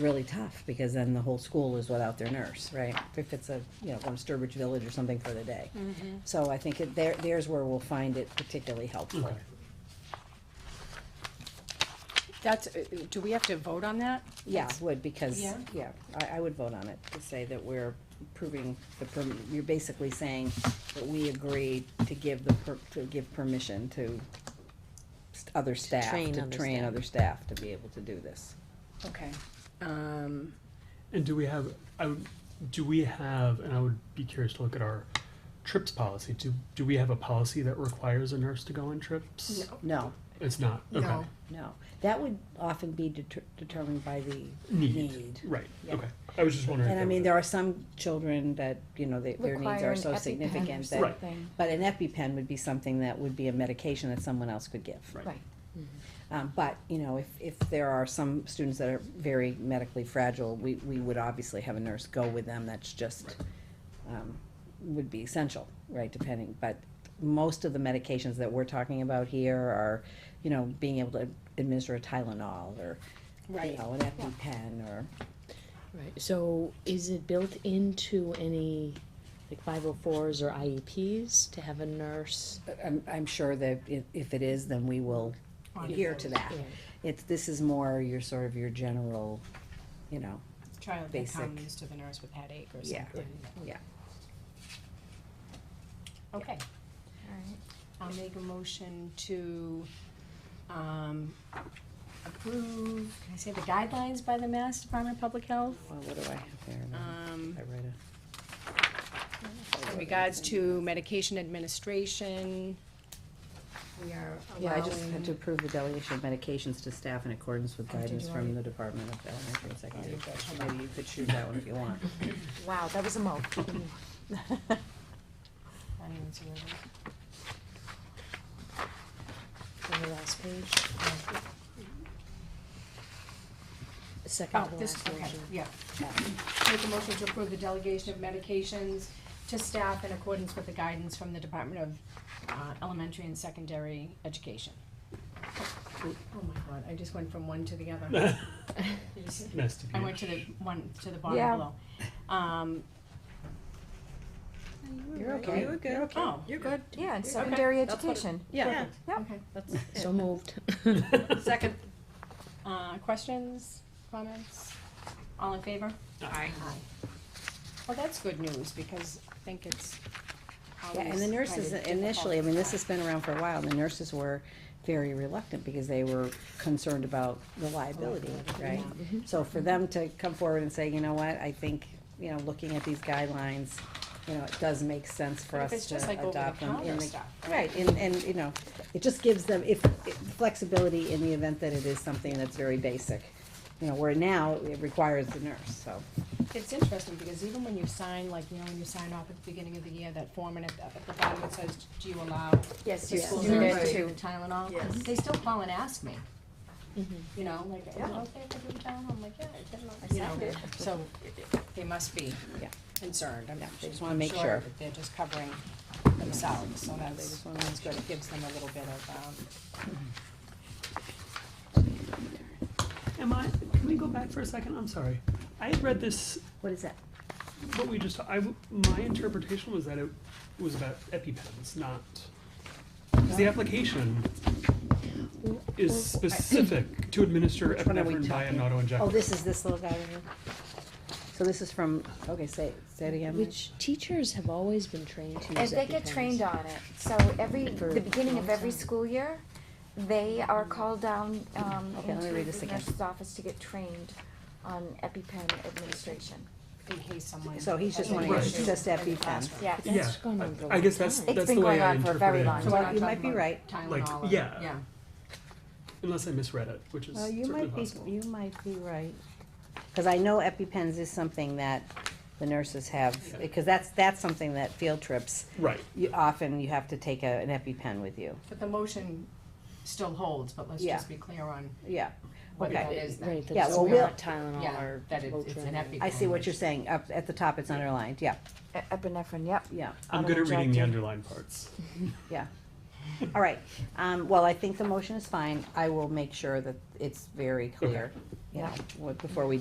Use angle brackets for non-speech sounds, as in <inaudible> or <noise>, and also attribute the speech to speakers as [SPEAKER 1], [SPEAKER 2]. [SPEAKER 1] really tough, because then the whole school is without their nurse, right? If it's a, you know, from Sturbridge Village or something for the day.
[SPEAKER 2] Mm-hmm.
[SPEAKER 1] So I think it, there, there's where we'll find it particularly helpful.
[SPEAKER 3] That's, uh, uh, do we have to vote on that?
[SPEAKER 1] Yeah, would, because,
[SPEAKER 3] Yeah.
[SPEAKER 1] yeah, I, I would vote on it, to say that we're approving the, perm- you're basically saying that we agree to give the, per- to give permission to st- other staff,
[SPEAKER 2] train
[SPEAKER 1] to
[SPEAKER 2] other
[SPEAKER 1] train
[SPEAKER 2] staff.
[SPEAKER 1] other staff to be able to do this.
[SPEAKER 3] Okay. Um,
[SPEAKER 4] And do we have, I would, do we have, and I would be curious to look at our trips policy, do, do we have a policy that requires a nurse to go on trips?
[SPEAKER 1] No,
[SPEAKER 4] It's not, okay.
[SPEAKER 3] No.
[SPEAKER 1] no, that would often be deter- determined by the need.
[SPEAKER 4] Need, right,
[SPEAKER 1] Yeah.
[SPEAKER 4] okay. I was just wondering. if
[SPEAKER 1] And I
[SPEAKER 4] there
[SPEAKER 1] mean,
[SPEAKER 4] was
[SPEAKER 1] there are some children that, you know, they- their needs
[SPEAKER 5] Require
[SPEAKER 1] are
[SPEAKER 5] an
[SPEAKER 1] so
[SPEAKER 5] EpiPen or
[SPEAKER 1] significant that,
[SPEAKER 4] Right.
[SPEAKER 5] something.
[SPEAKER 1] but an EpiPen would be something that would be a medication that someone else could give.
[SPEAKER 4] Right.
[SPEAKER 5] Right,
[SPEAKER 1] Um, but, you know, if, if there are some students that are very medically fragile, we, we would obviously have a nurse go with them, that's just, um, would be essential, right, depending, but most of the medications that we're talking about here are, you know, being able to administer a Tylenol or, you
[SPEAKER 3] Right.
[SPEAKER 1] know, an EpiPen or,
[SPEAKER 2] Right, so is it built into any, like five oh fours or IEPs to have a nurse?
[SPEAKER 1] I'm, I'm sure that if, if it is, then we will adhere to that. It's, this is more your sort of your general, you know,
[SPEAKER 6] child that
[SPEAKER 1] Basic.
[SPEAKER 6] comes to the nurse with headache or
[SPEAKER 1] Yeah.
[SPEAKER 6] something.
[SPEAKER 1] yeah.
[SPEAKER 6] Okay, I'll make a motion to, um, approve, can I say the guidelines by the Mass Department of Public Health?
[SPEAKER 1] Well, what do I have there?
[SPEAKER 6] Um,
[SPEAKER 1] I write a-
[SPEAKER 6] in regards to medication administration, we are
[SPEAKER 1] Yeah, I just had to
[SPEAKER 6] allowing.
[SPEAKER 1] approve the delegation of medications to staff in accordance with
[SPEAKER 5] did
[SPEAKER 1] guidance
[SPEAKER 5] you
[SPEAKER 1] from the Department of Elementary and Secondary Education. Maybe you could choose that one if you want.
[SPEAKER 5] wow, that was a mouth.
[SPEAKER 2] Mm-hmm.
[SPEAKER 6] I don't even see where it is.
[SPEAKER 2] On the last page?
[SPEAKER 5] Oh.
[SPEAKER 2] Second
[SPEAKER 6] Oh,
[SPEAKER 2] to
[SPEAKER 6] this,
[SPEAKER 2] last
[SPEAKER 6] okay,
[SPEAKER 2] page.
[SPEAKER 6] yeah. Make a motion to approve the delegation of medications to staff in accordance with the guidance from the Department of uh, Elementary and Secondary Education. Oh my god, I just went from one to the other. You see?
[SPEAKER 4] Nice to
[SPEAKER 6] I
[SPEAKER 4] be,
[SPEAKER 6] went to the one, to the bottom
[SPEAKER 5] Yeah.
[SPEAKER 6] below. Um,
[SPEAKER 1] You're okay. You're good.
[SPEAKER 6] oh,
[SPEAKER 1] You're good.
[SPEAKER 5] Yeah, and secondary
[SPEAKER 1] That's what it-
[SPEAKER 5] education.
[SPEAKER 1] Yeah.
[SPEAKER 5] Yep.
[SPEAKER 6] okay.
[SPEAKER 2] So moved.
[SPEAKER 1] <laughs> Second.
[SPEAKER 6] Uh, questions, comments? All in favor? Aye. Well, that's good news because I think it's
[SPEAKER 1] Yeah,
[SPEAKER 6] always.
[SPEAKER 1] and the nurses
[SPEAKER 6] kind of
[SPEAKER 1] initially, I mean, this
[SPEAKER 6] difficult.
[SPEAKER 1] has been around for a while, and the nurses were very reluctant because they were concerned about reliability, right?
[SPEAKER 6] Mm-hmm.
[SPEAKER 1] So for them to come forward and say, you know what, I think, you know, looking at these guidelines, you know, it does make sense for
[SPEAKER 6] But if
[SPEAKER 1] us
[SPEAKER 6] it's
[SPEAKER 1] to
[SPEAKER 6] just like over the
[SPEAKER 1] adopt them in
[SPEAKER 6] counter
[SPEAKER 1] the.
[SPEAKER 6] stuff,
[SPEAKER 1] Right, and, and, you know, it just gives them, if, if flexibility in the event that it is something that's very basic. You know, where now it requires the nurse, so.
[SPEAKER 6] It's interesting, because even when you sign, like, you know, when you sign off at the beginning of the year, that form, and at the, at the bottom it says, do you allow
[SPEAKER 5] Yes,
[SPEAKER 6] the school nurse to Tylenol? They still call and ask me,
[SPEAKER 1] Mm-hmm.
[SPEAKER 2] Mhm.
[SPEAKER 6] you know, like, are you okay for doing Tylenol? I'm like, yeah, I did it. You
[SPEAKER 5] signed
[SPEAKER 6] know,
[SPEAKER 5] it.
[SPEAKER 6] so they must be
[SPEAKER 1] Yeah.
[SPEAKER 6] concerned, I'm
[SPEAKER 1] Yeah, they just
[SPEAKER 6] I'm
[SPEAKER 1] wanna make sure.
[SPEAKER 6] that They're just covering themselves, so that's,
[SPEAKER 1] just wanna make
[SPEAKER 6] that's good, it gives them a little bit of, um,
[SPEAKER 4] <laughs> am I, can we go back for a second? I'm sorry. I had read this,
[SPEAKER 1] What is that?
[SPEAKER 4] what we just, I, w- my interpretation was that it was about EpiPens, not, because the application is
[SPEAKER 1] <laughs>
[SPEAKER 4] specific to administer
[SPEAKER 1] Which one are we
[SPEAKER 4] epinephrine by an
[SPEAKER 1] talking-
[SPEAKER 4] auto injector.
[SPEAKER 1] Oh, this is this little guy right here? So this is from, okay, say, say it again. Lynn.
[SPEAKER 2] Which teachers have always been trained to
[SPEAKER 5] And
[SPEAKER 2] use
[SPEAKER 5] they get
[SPEAKER 2] EpiPens.
[SPEAKER 5] trained on it, so every,
[SPEAKER 2] For
[SPEAKER 5] the beginning of
[SPEAKER 2] long
[SPEAKER 5] every
[SPEAKER 2] time.
[SPEAKER 5] school year, they are called down, um,
[SPEAKER 1] Okay, let me
[SPEAKER 5] into
[SPEAKER 1] read this
[SPEAKER 5] the
[SPEAKER 1] again.
[SPEAKER 5] nurse's office to get trained on EpiPen administration.
[SPEAKER 6] in case someone.
[SPEAKER 1] So he's just
[SPEAKER 6] has an
[SPEAKER 4] wanting-
[SPEAKER 6] issue
[SPEAKER 1] just
[SPEAKER 6] in the
[SPEAKER 1] EpiPen.
[SPEAKER 6] classroom.
[SPEAKER 5] Yeah.
[SPEAKER 4] Yeah,
[SPEAKER 2] That's gone on for a
[SPEAKER 4] I
[SPEAKER 2] long
[SPEAKER 4] guess that's,
[SPEAKER 2] time.
[SPEAKER 5] It's
[SPEAKER 4] that's
[SPEAKER 5] been
[SPEAKER 4] the way
[SPEAKER 5] going
[SPEAKER 4] I
[SPEAKER 5] on for a very
[SPEAKER 4] interpreted
[SPEAKER 5] long
[SPEAKER 4] it,
[SPEAKER 1] So
[SPEAKER 6] We're not
[SPEAKER 1] you might
[SPEAKER 6] talking
[SPEAKER 1] be
[SPEAKER 6] about
[SPEAKER 1] right.
[SPEAKER 6] Tylenol or-
[SPEAKER 4] yeah.
[SPEAKER 6] Yeah.
[SPEAKER 4] unless I misread it, which is
[SPEAKER 1] Well, uh, you
[SPEAKER 4] certainly
[SPEAKER 1] might be,
[SPEAKER 4] possible.
[SPEAKER 1] you might be right. Cause I know EpiPens is something that the nurses have,
[SPEAKER 4] Yeah.
[SPEAKER 1] because that's, that's something that field trips,
[SPEAKER 4] Right.
[SPEAKER 1] you, often you have to take a, an EpiPen with you.
[SPEAKER 6] But the motion still holds, but let's
[SPEAKER 1] Yeah.
[SPEAKER 6] just be clear on
[SPEAKER 1] Yeah,
[SPEAKER 6] what that
[SPEAKER 1] okay.
[SPEAKER 6] is then.
[SPEAKER 2] Right, that
[SPEAKER 1] Yeah,
[SPEAKER 2] it's
[SPEAKER 1] well, we'll-
[SPEAKER 2] not Tylenol
[SPEAKER 6] Yeah,
[SPEAKER 2] or
[SPEAKER 6] that it- it's an
[SPEAKER 2] Motrin.
[SPEAKER 6] EpiPen.
[SPEAKER 1] I see what you're saying. Up, at the top, it's underlined. Yeah,
[SPEAKER 5] E- Epinephrine, yep.
[SPEAKER 4] <laughs>
[SPEAKER 1] yeah.
[SPEAKER 4] I'm good at reading the
[SPEAKER 5] Auto-injector.
[SPEAKER 4] underlined parts.
[SPEAKER 1] Yeah. All right, um, well, I think the motion is fine. I will make sure that it's very clear, you know, what- before we